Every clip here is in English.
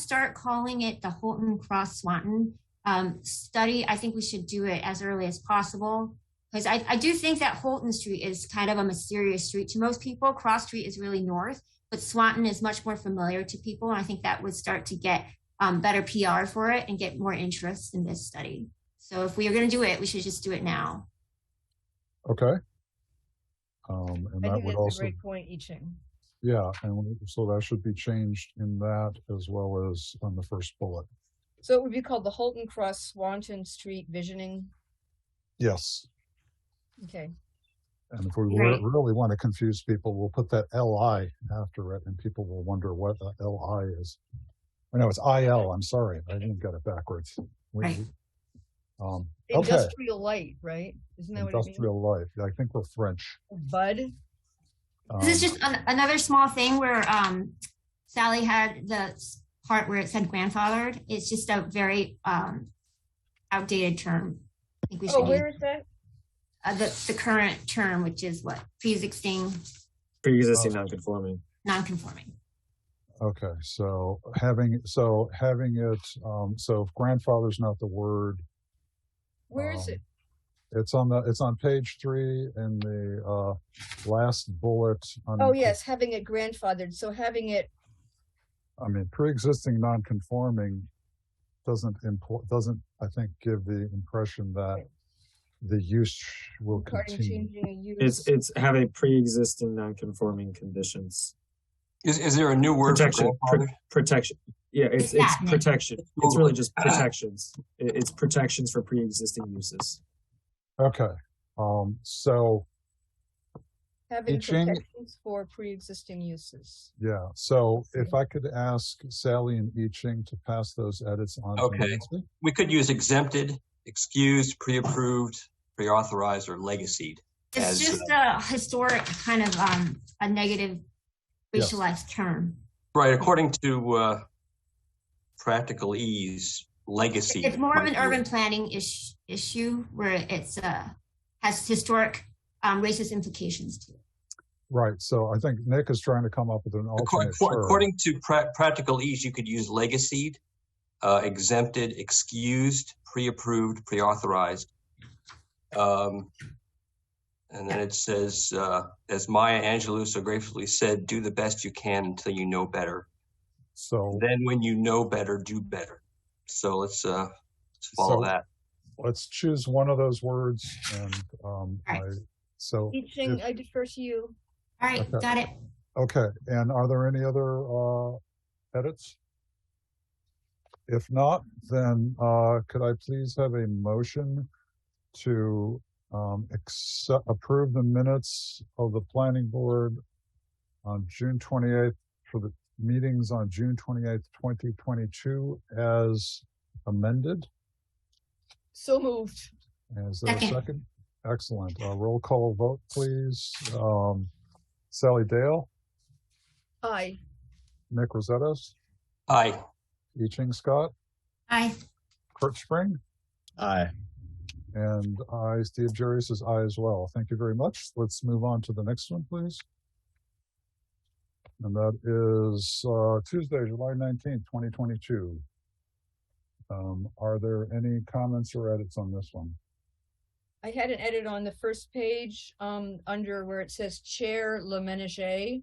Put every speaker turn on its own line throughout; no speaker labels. start calling it the Holton Cross Swanton um, study, I think we should do it as early as possible. Because I, I do think that Holton Street is kind of a mysterious street to most people. Cross Street is really north, but Swanton is much more familiar to people. And I think that would start to get um, better PR for it and get more interest in this study. So if we are going to do it, we should just do it now.
Okay. Um, and
I
that
think
would
that's a
also,
great point, I Ching.
yeah, and we- so that should be changed in that as well as on the first bullet.
So it would be called the Holton Cross Swanton Street Visioning.
Yes.
Okay,
And if we re-
Right.
really want to confuse people, we'll put that LI after it and people will wonder what the LI is. I know it's IL, I'm sorry. I didn't get it backwards. We-
Right.
Um, okay,
industrial light, right? Isn't that what it means?
industrial life. I think we're French.
Bud.
This is
Um,
just an, another small thing where um, Sally had the s- part where it said grandfathered. It's just a very um, outdated term. I think we should
Oh,
use
where is that?
uh, the, the current term, which is what pre-existing
pre-existing non-conforming.
non-conforming.
Okay, so having, so having it, um, so if grandfather's not the word,
Where is
Um,
it?
It's on the, it's on page three in the, uh, last bullet. on-
Oh, yes, having it grandfathered. So having it,
I mean, pre-existing non-conforming doesn't impl- doesn't, I think, give the impression that the use will
regarding
continue.
changing a use.
It's it's have a pre-existing non-conforming conditions
Is, is there a new word for
Protection.
grandfather?
protection. Yeah, it's it's
Exactly.
protection. It's really just protections. It- It's protections for pre-existing uses.
Okay, um, so,
Having
Ching-
protections for pre-existing uses.
yeah, so if I could ask Sally and I Ching to pass those edits on. to
Okay.
Nancy?
We could use exempted, excused, pre-approved, pre-authorized, or legacied.
It's
As,
just
uh,
a historic kind of um, a negative
Yes.
racialized term.
Right, according to uh, practical ease, legacy.
It's more of an
might be-
urban planning ish, issue where it's uh, has historic um, racist implications to it.
Right, so I think Nick is trying to come up with an
According,
alternate
according-
term.
according to pra- practical ease, you could use legacied, uh, exempted, excused, pre-approved, pre-authorized. Um, and then it says, uh, as Maya Angelou so gracefully said, "Do the best you can until you know better.
So
Then, when you know better, do better." So let's uh, let's follow
So-
that.
let's choose one of those words and, um, I,
Right.
so,
Teaching, I defer to you.
All right,
Okay.
got it.
okay, and are there any other, uh, edits? If not, then, uh, could I please have a motion to, um, accept, approve the minutes of the planning board on June twenty-eighth for the meetings on June twenty-eighth, twenty twenty-two as amended?
So moved.
And Is there a
Second.
second? Excellent. Uh, roll call vote, please. Um, Sally Dale,
Aye.
Nick Rosettos,
Aye.
I Ching Scott,
Aye.
Kurt Spring,
Aye.
and I, Steve Jerry says I as well. Thank you very much. Let's move on to the next one, please. And that is, uh, Tuesday, July nineteenth, twenty twenty-two. Um, are there any comments or edits on this one?
I had an edit on the first page, um, under where it says Chair Le Menager.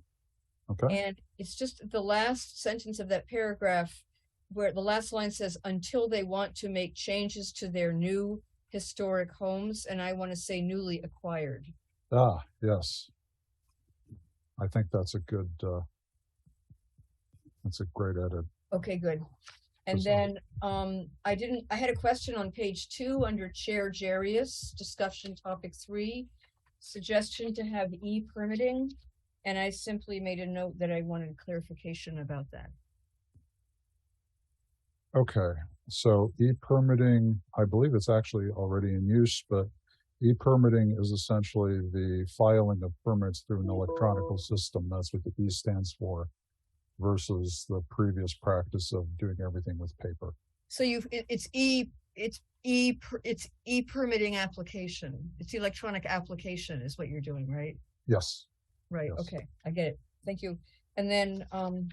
Okay,
And it's just the last sentence of that paragraph where the last line says, until they want to make changes to their new historic homes, and I want to say newly acquired.
ah, yes. I think that's a good, uh, that's a great edit.
Okay, good. And
Excellent.
then, um, I didn't, I had a question on page two under Chair Jarius, discussion topic three, suggestion to have E permitting. And I simply made a note that I wanted clarification about that.
Okay, so e-permitting, I believe it's actually already in use, but e-permitting is essentially the filing of permits through an electronic system. That's what the E stands for versus the previous practice of doing everything with paper.
So you've, it, it's E, it's E, per- it's E permitting application. It's electronic application is what you're doing, right?
Yes,
Right,
Yes.
okay, I get it. Thank you. And then, um,